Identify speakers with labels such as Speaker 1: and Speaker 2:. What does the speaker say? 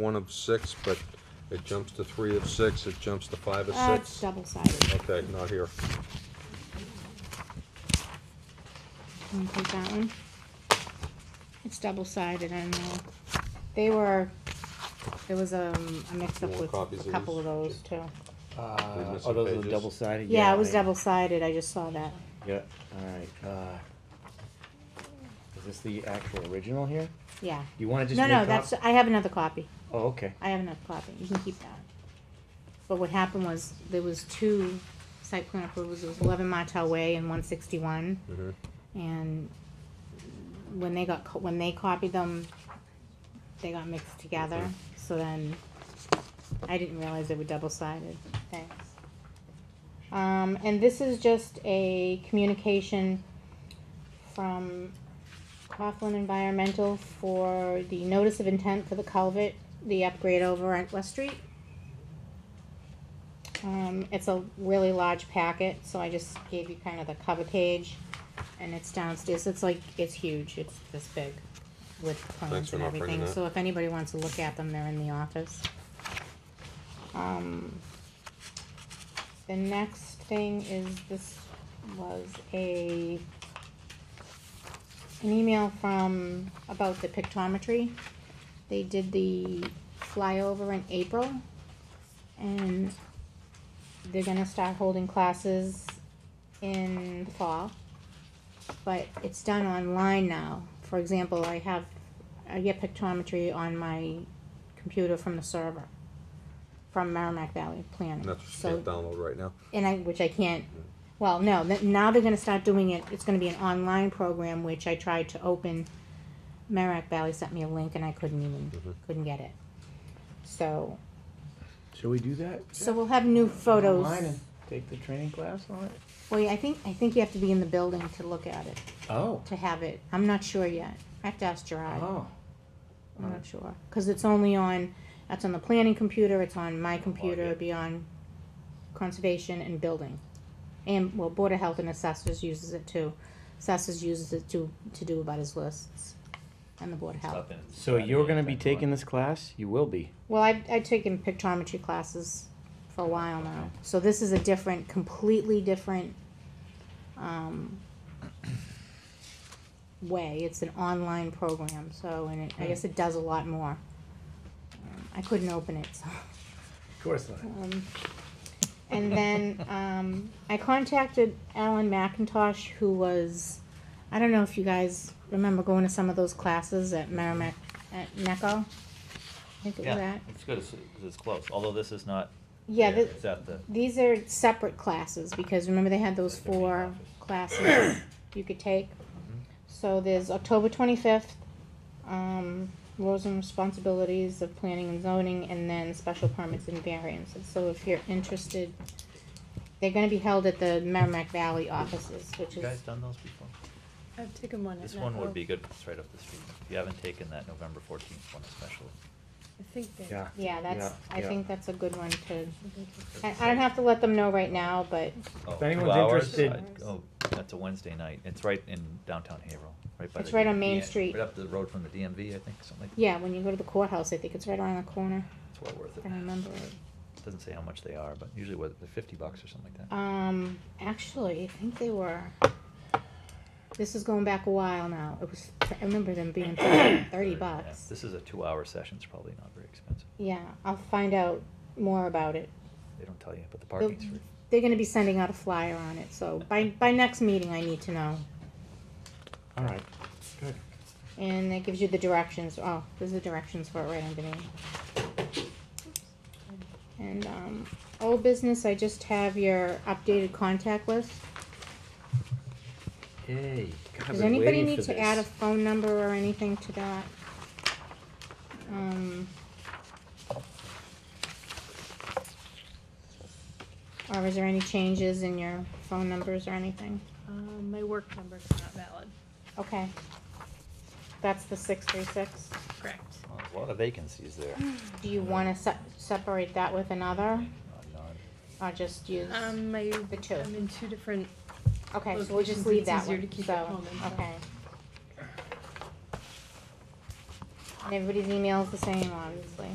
Speaker 1: one of six, but it jumps to three of six, it jumps to five of
Speaker 2: Uh, it's
Speaker 1: six.
Speaker 2: double sided.
Speaker 1: Okay, not here.
Speaker 2: Can you take that one? It's double sided, I know. They were, there was um, a mix up
Speaker 1: More
Speaker 2: with
Speaker 1: copies
Speaker 2: a
Speaker 1: of
Speaker 2: couple of
Speaker 1: these?
Speaker 2: those too.
Speaker 1: We
Speaker 3: Uh,
Speaker 1: missed
Speaker 3: oh,
Speaker 1: some
Speaker 3: those are the
Speaker 1: pages.
Speaker 3: double sided?
Speaker 2: Yeah, it was double sided, I just saw that.
Speaker 3: Yeah, alright, uh. Is this the actual original here?
Speaker 2: Yeah.
Speaker 3: You wanna just
Speaker 2: No,
Speaker 3: make
Speaker 2: no,
Speaker 3: cop-
Speaker 2: that's, uh, I have another copy.
Speaker 3: Oh, okay,
Speaker 2: I have another copy. You can keep that. But what happened was, there was two site plan approvals. There was eleven Martel Way and one sixty-one.
Speaker 1: Mhm.
Speaker 2: And when they got, co- when they copied them, they got mixed together, so then I didn't realize they were double-sided, thanks. Um, and this is just a communication from Coughlin Environmental for the notice of intent for the culvert, the upgrade over at West Street. Um, it's a really large packet, so I just gave you kind of the cover page, and it's downstairs, it's like, it's huge, it's this big with plans
Speaker 1: for
Speaker 2: and
Speaker 1: not bringing
Speaker 2: everything,
Speaker 1: that.
Speaker 2: so if anybody wants to look at them, they're in the office. Um, the next thing is, this was a, an email from, about the pictometry. They did the flyover in April, and they're gonna start holding classes in the fall. But it's done online now. For example, I have, I get pictometry on my computer from the server, from Merrimack Valley
Speaker 1: And
Speaker 2: Planning.
Speaker 1: That's what you
Speaker 2: So
Speaker 1: can't download right now.
Speaker 2: and I, which I can't, well, no, th- now they're gonna start doing it, it's gonna be an online program, which I tried to open. Merrimack Valley sent me a link and I couldn't even, couldn't get it. So,
Speaker 3: shall we do that?
Speaker 2: so we'll have new photos.
Speaker 3: Online and Take the training class on it?
Speaker 2: Well, yeah, I think, I think you have to be in the building to look at it,
Speaker 3: Oh,
Speaker 2: to have it, I'm not sure yet, I have to ask Gerard,
Speaker 3: oh,
Speaker 2: I'm not sure, cause it's only on, that's on the planning computer, it's on my computer,
Speaker 3: yeah.
Speaker 2: it'd be on conservation and building. And, well, Board of Health and Assessors uses it too. Assessors uses it to, to do about his lists and the Board of Health.
Speaker 3: so you're gonna be taking this class? You will be.
Speaker 2: Well, I've, I've taken pictometry classes for a while now, so this is a different, completely different, um, way. It's an online program, so, and it, I guess it does a lot more. Um, I couldn't open it, so.
Speaker 3: Of course not.
Speaker 2: Um, and then um, I contacted Alan McIntosh, who was, I don't know if you guys remember going to some of those classes at Merrimack, at NECO? I think it was
Speaker 4: Yeah,
Speaker 2: that.
Speaker 4: it's good, it's, it's close, although this is not.
Speaker 2: Yeah,
Speaker 4: there,
Speaker 2: thi-
Speaker 4: It's at the,
Speaker 2: these are separate classes, because remember they had those
Speaker 4: Like the Mm-hmm. main
Speaker 2: four
Speaker 4: office.
Speaker 2: classes you could take? So there's October twenty-fifth, um, roles and responsibilities of planning and zoning, and then special permits and variances, so if you're interested, they're gonna be held at the Merrimack Valley offices, which
Speaker 4: you
Speaker 2: is,
Speaker 4: guys done those before?
Speaker 5: I've taken one. at
Speaker 4: This one
Speaker 5: Nutco.
Speaker 4: would be good, it's right up the street. If you haven't taken that November fourteenth one especially.
Speaker 5: I think they.
Speaker 3: Yeah.
Speaker 2: yeah, that's,
Speaker 3: Yeah,
Speaker 2: I
Speaker 3: yeah.
Speaker 2: think that's a good one to,
Speaker 5: I think it's-
Speaker 2: I, I don't have to let them know right now, but,
Speaker 4: Oh, two
Speaker 3: anyone's
Speaker 4: hours?
Speaker 3: interested-
Speaker 4: I'd go- that's a Wednesday night, it's right in downtown Haverhill, right by the.
Speaker 2: It's right on Main
Speaker 4: DN
Speaker 2: Street.
Speaker 4: Right up the road from the DMV, I think, something like. that.
Speaker 2: yeah, when you go to the courthouse, I think it's right around the corner,
Speaker 4: It's well worth
Speaker 2: if
Speaker 4: it.
Speaker 2: I remember it.
Speaker 4: Doesn't say how much they are, but usually what, they're fifty bucks or something like that.
Speaker 2: Um, actually, I think they were. This is going back a while now. It was. I remember them being thirty
Speaker 4: Yeah,
Speaker 2: bucks.
Speaker 4: This is a two-hour session, it's probably not very expensive.
Speaker 2: Yeah, I'll find out more about it.
Speaker 4: They don't tell you, but the parking's free.
Speaker 2: They're gonna be sending out a flyer on it, so by by next meeting, I need to know.
Speaker 3: All right, good.
Speaker 2: And it gives you the directions. Oh, there's the directions for it right underneath. And um, old business. I just have your updated contact list.
Speaker 3: Hey, God, I've
Speaker 2: Does
Speaker 3: been
Speaker 2: anybody
Speaker 3: waiting
Speaker 2: need
Speaker 3: for
Speaker 2: to add a
Speaker 3: this.
Speaker 2: phone number or anything to that? Um. Or is there any changes in your phone numbers or anything?
Speaker 5: Um, my work number's not valid.
Speaker 2: Okay. That's the six three six.
Speaker 5: Correct.
Speaker 4: Well, there's A lot of vacancies there.
Speaker 2: Do you wanna se- separate that with another,
Speaker 4: Not- not-
Speaker 2: or just use?
Speaker 5: Um, my,
Speaker 2: The two.
Speaker 5: I'm in two different,
Speaker 2: Okay, so we'll just leave
Speaker 5: locations,
Speaker 2: that
Speaker 5: it's easier
Speaker 2: one,
Speaker 5: to keep it
Speaker 2: so,
Speaker 5: home and-
Speaker 2: okay. And everybody's email's the same, obviously.